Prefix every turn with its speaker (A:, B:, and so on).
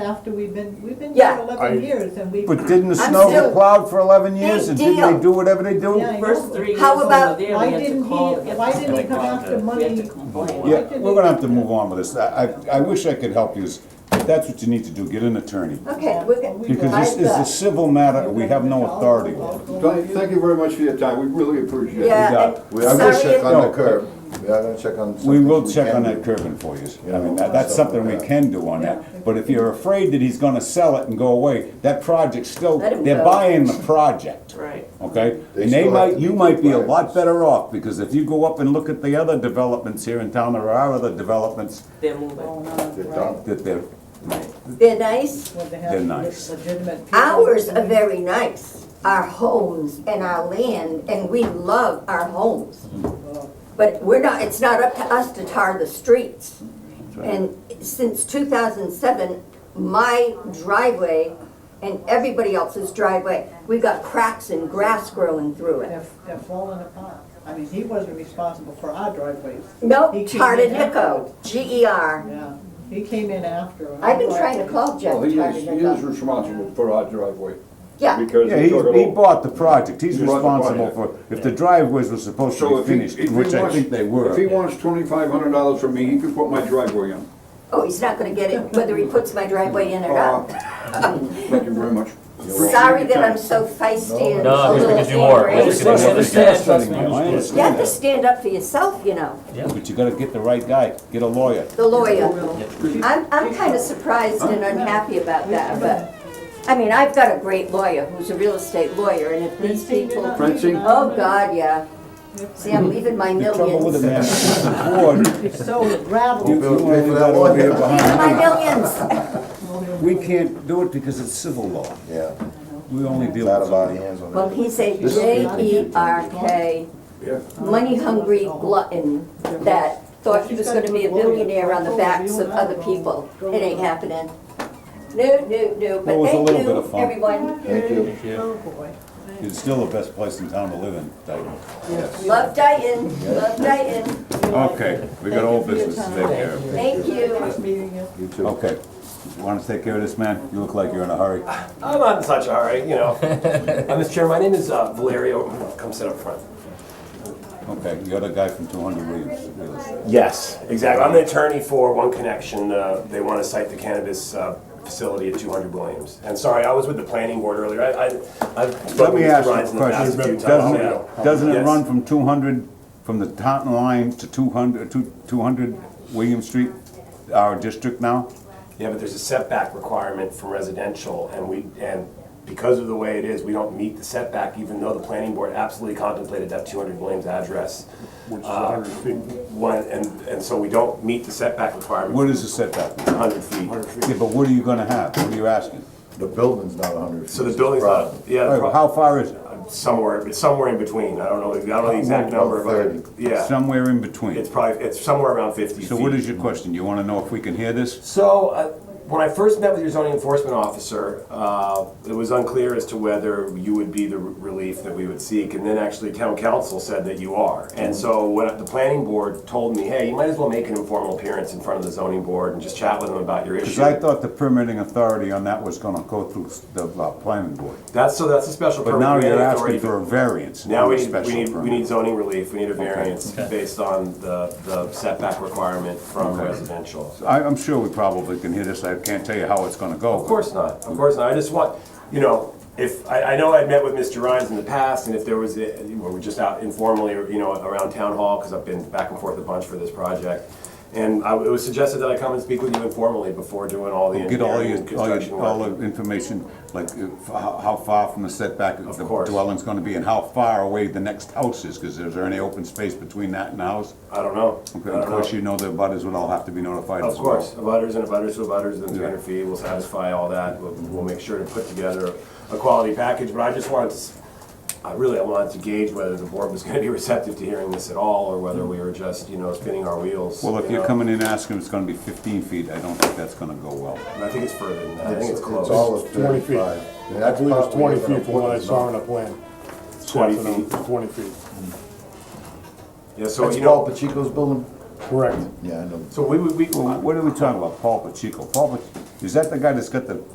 A: after we've been, we've been
B: Yeah.
A: here
C: I-
A: eleven years and we've.
D: But didn't the
B: I'm
D: snow
B: still-
D: get plowed for eleven years and didn't
B: deal.
D: they do whatever they do?
A: Yeah, I
E: First
A: know.
E: three years
B: How
E: we
B: about-
E: were there,
A: Why
E: we had to
A: didn't
E: call.
A: he-
E: to get
A: why
E: the
A: didn't he
E: snow
A: come
E: clogged
A: after
E: up. We had
A: money?
E: to complain.
D: Yeah, we're gonna have to move on with this. I, I I wish I could help you, but that's what you need to do, get an attorney.
B: Okay, we're gonna.
D: Because this is a civil matter, we have no authority over it.
C: Thank thank you very much for your time, we really appreciate it.
B: Yeah,
F: We
B: and
F: are gonna check
B: sorry,
D: No,
F: on
D: but-
F: the curb. We are gonna check on.
D: We
F: some
D: will
F: things
D: check
F: can
D: on
F: do.
D: that curbing for you.
F: Yeah.
D: I mean, that- that's something we can do on that. But if you're afraid that he's gonna sell it and go away, that project's still,
B: Let him
D: they're
B: go.
D: buying the project.
E: Right.
D: Okay?
F: They
D: And they
F: still have
D: might,
F: to
D: you
F: meet
D: might be a lot
F: requirements.
D: better off, because if you go up and look at the other developments here in town, there are other developments
E: They're moving.
F: They're done.
D: that they're,
B: they're nice,
A: They're
D: They're nice.
B: ours are very nice, our homes and our land, and we love our homes. But we're not, it's not up to us to tar the streets. And since two thousand seven, my driveway and everybody else's driveway, we got cracks and grass growing through it.
A: They're, they're falling apart. I mean, he wasn't responsible for our driveways.
B: Nope,
A: He came in
B: Tardanico, G E R.
A: Yeah, he came in after. our
B: I've been trying to call Jeff
C: Well, he is, he is
B: Tardanico.
C: responsible for our driveway.
B: Yeah,
C: Because
D: yeah,
C: he
D: he,
C: took
D: he
C: it over.
D: bought the project, he's
C: He bought the
D: responsible for,
C: project.
D: if the driveways were supposed
C: So
D: to be
C: if he-
D: finished,
C: if he
D: which I
C: wants-
D: think they were.
C: If he wants twenty-five hundred dollars from me, he could put my driveway in.
B: oh, he's not gonna get it whether he puts my driveway in or
C: Uh,
B: not.
C: Thank you very much. Oh.
B: Sorry that I'm so feisty and
G: No,
B: a
G: it's because you
B: little
G: are.
B: angry.
G: It's
D: It's frustrating,
G: It's frustrating,
D: man. I
G: it's
B: You have to
D: understand
B: stand up for yourself, you know,
D: that. But you gotta get the right guy, get a lawyer.
B: the lawyer. I'm, I'm kinda surprised and unhappy about that, but, I mean, I've got a great lawyer who's a real estate lawyer, and if these
A: Francine, you're
B: people,
A: not
C: Francine?
A: leaving our
B: oh, God, yeah. See, I'm leaving my
D: The trouble with it, man,
B: millions.
D: is the board,
A: It's so gravelly.
D: you
F: Bill,
D: you
F: pay
D: only
F: for that
D: got over here
F: lawyer.
D: behind
B: My
D: me.
B: millions.
D: We can't do it because it's civil law.
F: Yeah,
D: We only deal
F: not
D: with.
F: about hands on
B: Well,
F: it.
B: he's a
F: This is-
B: J-E-R-K,
C: Yeah.
B: money-hungry glutton that thought he was gonna be a billionaire on the backs of other people. It ain't happening. No, no, no,
D: Well, it
B: but
D: was a
B: thank
D: little bit of
B: you,
D: fun.
B: everyone.
F: Thank you,
A: Oh, boy.
D: It's still the best place in town to live in, Dayton.
F: yes.
B: Love Dayton, love Dayton,
D: Okay, we got old business to take care of.
B: thank you.
A: Nice meeting you.
F: You too.
D: Okay, wanna take care of this, man? You look like you're in a hurry.
H: I'm not in such a hurry, you know. Uh, Mr. Chair, my name is uh, Valerio. Come sit up front.
D: Okay, you're the guy from two hundred Williams. Real Estate.
H: Yes, exactly. I'm an attorney for One Connection. Uh, They want to cite the cannabis uh, facility at 200 Williams. And sorry, I was with the planning board earlier. I- I- I've
D: Let
H: spoken
D: me
H: to Mr.
D: ask you
H: Rhines
D: a
H: in the past
D: question.
H: a few times.
D: Doesn't
H: now.
D: it, doesn't it
H: Yes.
D: run from two hundred, from the Taunton line to 200 to 200 William Street, our district now?
H: Yeah, but there's a setback requirement for residential, and we, and because of the way it is, we don't meet the setback, even though the planning board absolutely contemplated that two hundred Williams address. Which is hundred feet. One, and, and so we don't meet the setback requirement,
D: What is the setback?
H: hundred feet.
D: Yeah, but what are you gonna have? What are you asking?
F: The building's not hundred feet.
H: So the building's not, yeah,
D: All
H: the
D: right, well, How
H: pro-
D: far is it?
H: somewhere, it's somewhere in between, I don't know, I don't know the exact
F: About
H: number,
F: thirty.
H: but, yeah.
D: Somewhere in between.
H: It's probably, it's somewhere around fifty feet.
D: So what is your question? You wanna know if we can hear this?
H: So, uh, when I first met with your zoning enforcement officer, uh, it was unclear as to whether you would be the r- relief that we would seek, and then actually town council said that you are. And so, when the planning board told me, hey, you might as well make an informal appearance in front of the zoning board and just chat with them about your
D: Cause
H: issue.
D: I thought the permitting authority on that was gonna go through the uh, planning board.
H: That's, so that's a special
D: But
H: permit.
D: now
H: we had
D: you're
H: authority
D: asking
H: to-
D: for a variance,
H: Now
D: not
H: we
D: a
H: need, we
D: special
H: need, we need
D: permit.
H: zoning relief, we need a variance based on the, the setback requirement from
D: Okay.
H: residential.
D: I, I'm sure we probably can hear this. I can't tell you how it's gonna go.
H: Of course not, of course not. I just want, you know, if, I, I know I've met with Mr. Rhines in the past, and if there was, a- we were just out informally, you know, around town hall, because I've been back and forth a bunch for this project. And I, it was suggested that I come and speak with you informally before doing all the
D: Get all
H: engineering and
D: your, all
H: construction
D: your, all
H: work.
D: the information, like uh, f- how, how far from the setback
H: Of
D: the
H: course.
D: dwelling's gonna be and how far away the next house is, cause is there any open space between that and the house?
H: I don't know. I
D: Okay,
H: don't
D: Of course,
H: know.
D: you know the butters would all have to be notified
H: Of
D: as well.
H: course, abutters and abutters to abutters, and three
D: Yeah.
H: hundred feet, we'll satisfy all that, we'll, we'll make sure to put together a quality package, but I just wanted to, s- I really, I wanted to gauge whether the board was gonna be receptive to hearing this at all, or whether we were just, you know, spinning our wheels.
D: Well, if
H: you
D: you're
H: know.
D: coming in asking if it's gonna be fifteen feet, I don't think that's gonna go well.
H: I think it's further than that, I think it's close.
F: all of
I: Twenty feet.
F: thirty-five. And
I: I
F: that's
I: believe it's
F: probably
I: twenty
F: even a
I: feet from what I
F: woman's
I: saw
F: number.
I: on a plan.
H: Twenty
I: That's what I'm- Twenty feet,
H: Yeah, so,
F: That's
H: you
F: Paul
H: know,
F: Pacheco's building?
I: correct.
F: Yeah, I know.
H: so we would, we,
D: Well, What are we talking about, Paul Pacheco? Paul Pacheco, Is that the guy that's got the